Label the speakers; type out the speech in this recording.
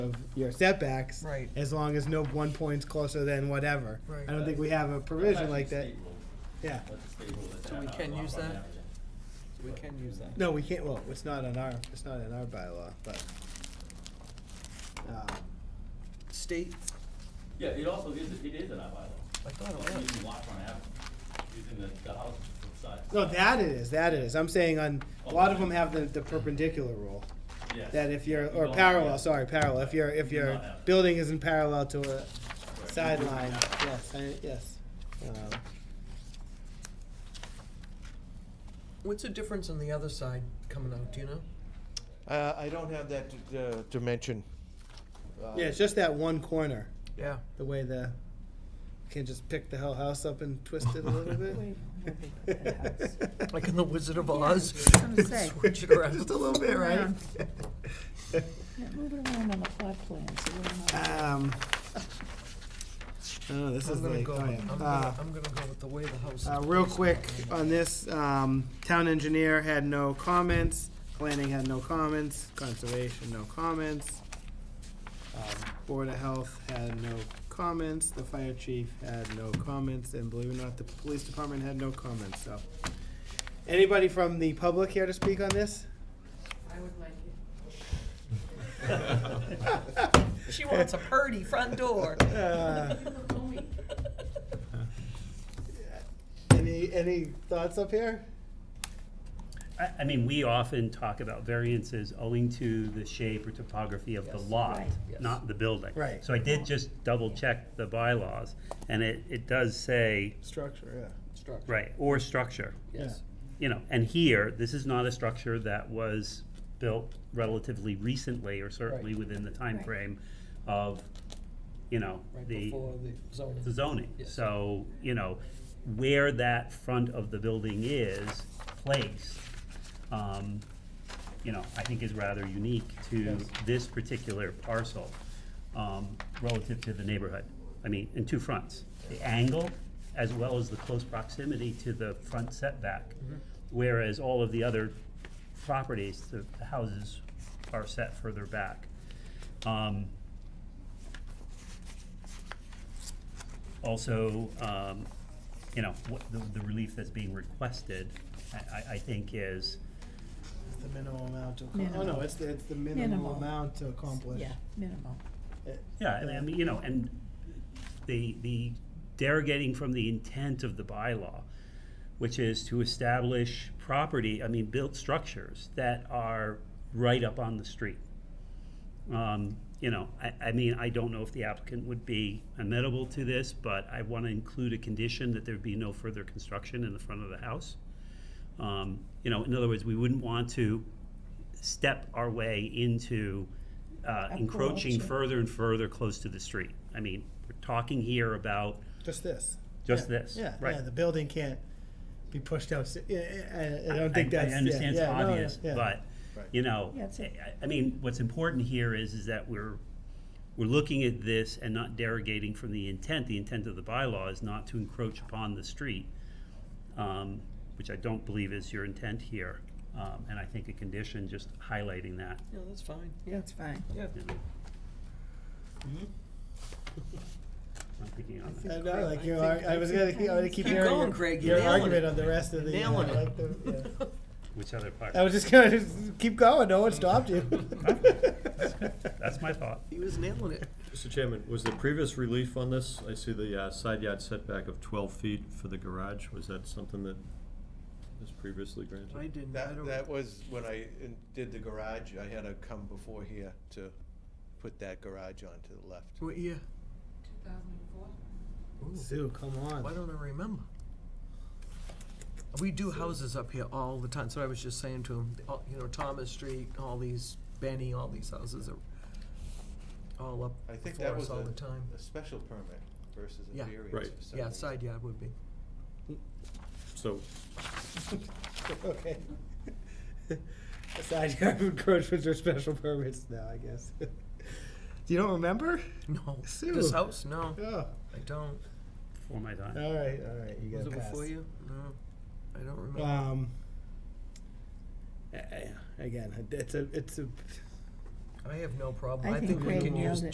Speaker 1: of your setbacks.
Speaker 2: Right.
Speaker 1: As long as no one point's closer than whatever.
Speaker 2: Right.
Speaker 1: I don't think we have a provision like that.
Speaker 3: State rule.
Speaker 1: Yeah.
Speaker 3: That's the state rule that
Speaker 2: So we
Speaker 3: that, uh,
Speaker 2: can
Speaker 3: lot
Speaker 2: use
Speaker 3: line
Speaker 2: that?
Speaker 3: average.
Speaker 2: We can use that.
Speaker 1: No, we can't, well, it's not in our, it's not in our bylaw, but. um,
Speaker 2: State,
Speaker 3: Yeah, it also is, it is in our bylaw.
Speaker 2: I thought
Speaker 3: Well,
Speaker 2: it was.
Speaker 3: Using lot line average, using the, the house size.
Speaker 1: No, that it is, that it is. I'm saying on, a lot of them have the, the perpendicular rule.
Speaker 3: Yes.
Speaker 1: That if you're,
Speaker 3: We
Speaker 1: or
Speaker 3: don't- yeah.
Speaker 1: parallel, sorry, parallel, if your, if
Speaker 3: We do
Speaker 1: your
Speaker 3: not have-
Speaker 1: building isn't parallel to a
Speaker 3: Right.
Speaker 1: sideline, yes, I, yes. Um,
Speaker 2: what's the difference on the other side coming out, do you know?
Speaker 4: Uh, I don't have that d- uh, dimension. Uh,
Speaker 1: Um, Yeah, it's just that one corner,
Speaker 2: Yeah.
Speaker 1: the way the, can just pick the whole house up and twist it a little bit.
Speaker 2: Like in The Wizard of Oz.
Speaker 5: I was gonna say.
Speaker 2: Switch it around.
Speaker 4: Just a little bit, right?
Speaker 5: Yeah, Move it around on the plot plan, so we don't know.
Speaker 1: Um, oh, this
Speaker 2: I'm
Speaker 1: is
Speaker 2: gonna
Speaker 1: like,
Speaker 2: go,
Speaker 1: oh
Speaker 2: I'm
Speaker 1: yeah. Uh,
Speaker 2: gonna, I'm gonna go with the way the house is.
Speaker 1: Uh, real quick on this, um, town engineer had no comments, planning had no comments, conservation, no comments. Um, Board of Health had no comments, the fire chief had no comments, and believe it or not, the police department had no comments, so. Anybody from the public here to speak on this?
Speaker 2: She wants a purdy front door.
Speaker 1: Uh, Any, any thoughts up here?
Speaker 6: I, I mean, we often talk about variances owing to the shape or topography of the lot,
Speaker 5: Right.
Speaker 6: not the building.
Speaker 1: Right.
Speaker 6: So I did just double check the bylaws, and it, it does say,
Speaker 1: Structure, yeah.
Speaker 2: Structure,
Speaker 6: right, or structure.
Speaker 2: yes.
Speaker 6: You know, and here, this is not a structure that was built relatively recently, or certainly within the time
Speaker 5: Right.
Speaker 6: frame of, you know,
Speaker 2: Right
Speaker 6: the,
Speaker 2: before the zoning.
Speaker 6: the zoning.
Speaker 2: Yes.
Speaker 6: So, you know, where that front of the building is placed, um, you know, I think is rather unique to this particular parcel, um, relative to the neighborhood. I mean, in two fronts, the angle as well as the close proximity to the front setback. Whereas all of the other properties, the the houses are set further back. Um, also, um, you know, what, the, the relief that's being requested, I, I, I think is,
Speaker 1: It's the minimum amount to, accom- oh no,
Speaker 5: Minimal.
Speaker 1: it's the, it's the minimum
Speaker 5: Minimal.
Speaker 1: amount to accomplish.
Speaker 5: Yeah, minimal.
Speaker 6: yeah, I mean- I mean, you know, and the, the derogating from the intent of the bylaw, which is to establish property, I mean, built structures that are right up on the street. Um, you know, I, I mean, I don't know if the applicant would be amenable to this, but I wanna include a condition that there be no further construction in the front of the house. Um, you know, in other words, we wouldn't want to step our way into, uh, encroaching
Speaker 5: Encroaching.
Speaker 6: further and further close to the street. I mean, we're talking here about
Speaker 1: Just this.
Speaker 6: just
Speaker 1: Yeah,
Speaker 6: this,
Speaker 1: Yeah,
Speaker 6: right?
Speaker 1: yeah, the building can't be pushed out, yeah, yeah, I, I don't
Speaker 6: I-
Speaker 1: think
Speaker 6: I-
Speaker 1: that's,
Speaker 6: I
Speaker 1: yeah,
Speaker 6: understand it's
Speaker 1: yeah, no, no,
Speaker 6: obvious,
Speaker 1: yeah.
Speaker 6: but, you know,
Speaker 5: Yeah, it's
Speaker 6: I,
Speaker 5: a-
Speaker 6: I mean, what's important here is, is that we're, we're looking at this and not derogating from the intent. The intent of the bylaw is not to encroach upon the street, um, which I don't believe is your intent here. Um, and I think a condition just highlighting that,
Speaker 2: No, that's fine, yeah,
Speaker 5: That's fine.
Speaker 2: yeah.
Speaker 6: you know.
Speaker 5: Mm-hmm.
Speaker 6: I'm picking on
Speaker 1: I
Speaker 6: that.
Speaker 1: know, like you
Speaker 2: I
Speaker 1: are,
Speaker 2: think-
Speaker 1: I was gonna, keep- I would keep
Speaker 2: Keep
Speaker 1: hearing
Speaker 2: going,
Speaker 1: your,
Speaker 2: Greg, you're
Speaker 1: your
Speaker 2: nailing
Speaker 1: argument
Speaker 2: it.
Speaker 1: on the rest of the, yeah,
Speaker 2: Nailing it.
Speaker 1: like the, yeah.
Speaker 6: Which other part?
Speaker 1: I was just gonna, just keep going, no one stopped you.
Speaker 6: That's my thought.
Speaker 2: He was nailing it.
Speaker 7: Mr. Chairman, was the previous relief on this, I see the uh, side yard setback of 12 feet for the garage, was that something that was previously granted?
Speaker 2: I didn't, I
Speaker 4: That,
Speaker 2: don't.
Speaker 4: that was when I in- did the garage, I had to come before here to put that garage on to the left.
Speaker 2: What year?
Speaker 1: Sue, come
Speaker 2: Why
Speaker 1: on.
Speaker 2: don't I remember? We do houses up here all the time, so I was just saying to him, all- you know, Thomas Street, all these, Benny, all these houses are all up
Speaker 4: I think
Speaker 2: before
Speaker 4: that was
Speaker 2: us all
Speaker 4: a,
Speaker 2: the time.
Speaker 4: a special permit versus a
Speaker 2: Yeah.
Speaker 4: variance.
Speaker 7: Right.
Speaker 4: for some
Speaker 2: Yeah,
Speaker 4: reason.
Speaker 2: side yard would be.
Speaker 7: So,
Speaker 1: Okay. A Side yard encroachments or special permits now, I guess. You don't remember?
Speaker 2: No, this
Speaker 1: Sue.
Speaker 2: house, no,
Speaker 1: Oh,
Speaker 2: I don't.
Speaker 6: Before my time.
Speaker 1: all right, all right, you
Speaker 2: Was
Speaker 1: gotta
Speaker 2: it
Speaker 1: pass.
Speaker 2: before you? No, I don't remember.
Speaker 1: Um, a- a- again, it's a, it's a,
Speaker 2: I have no problem.
Speaker 5: I
Speaker 2: I
Speaker 5: think
Speaker 2: think we
Speaker 5: Craig
Speaker 2: can
Speaker 5: nailed
Speaker 2: use
Speaker 5: it.